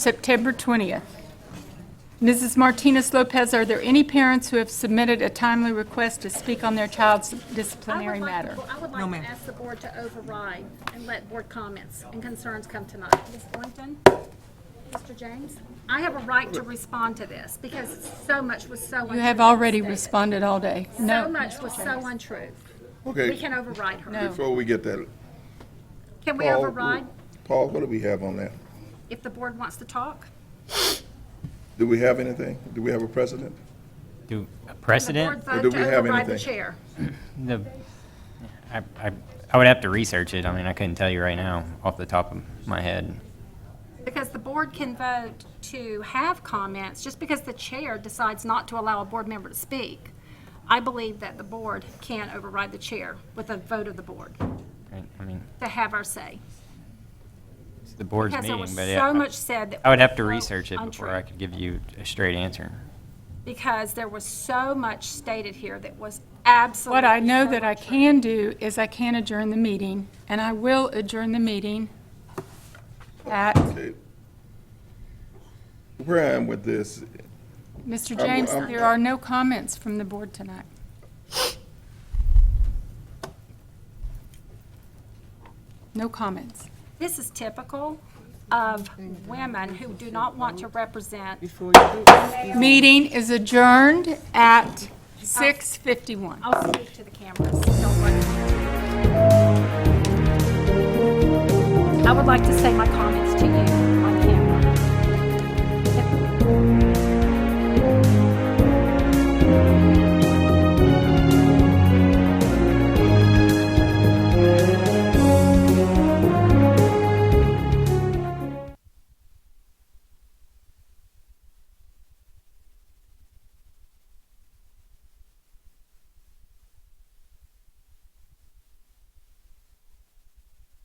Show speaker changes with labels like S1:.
S1: September 20th. Mrs. Martinez Lopez, are there any parents who have submitted a timely request to speak on their child's disciplinary
S2: I would like-
S1: matter?
S2: well, I would
S3: No,
S2: like
S3: ma'am.
S2: to ask the board to override and let board comments and concerns come tonight. Ms. Boynton? Mr. James? I have a right to respond to this because so much was so untrue.
S1: You have already
S2: stated.
S1: responded all day.
S2: So
S1: No,
S2: much was so untrue. We
S4: Okay,
S2: can override her.
S1: no.
S4: before we get that,
S2: Can we
S4: Paul,
S2: override
S4: Paul, what do we have on that?
S2: if the board wants to talk?
S4: Do we have anything? Do we have a precedent?
S5: Do a
S2: The board
S5: precedent?
S4: Or
S2: vote
S4: do
S2: to
S4: we have
S2: override the
S4: anything?
S2: chair.
S5: The, I, I, I would have to research it. I mean, I couldn't tell you right now off the top of my head.
S2: Because the board can vote to have comments, just because the chair decides not to allow a board member to speak. I believe that the board can override the chair with a vote of the board
S5: I I mean,
S2: to have our say.
S5: it's the board's
S2: Because there
S5: meeting,
S2: was
S5: but yeah,
S2: so much said that.
S5: I would have to
S2: was
S5: research it before
S2: untrue.
S5: I could give you a straight answer.
S2: Because there was so much stated here that was absolutely.
S1: What I know
S2: so
S1: that I
S2: untrue.
S1: can do is I can adjourn the meeting, and I will adjourn the meeting at,
S4: Okay. Where I am with this,
S1: Mr.
S4: I'm-
S1: James,
S4: I'm-
S1: there are no comments from the board tonight. No comments.
S2: This is typical of women who do not want to represent.
S1: Meeting is adjourned at 6:51.
S2: I'll speak to the cameras. Don't worry. I would like to say my comments to you.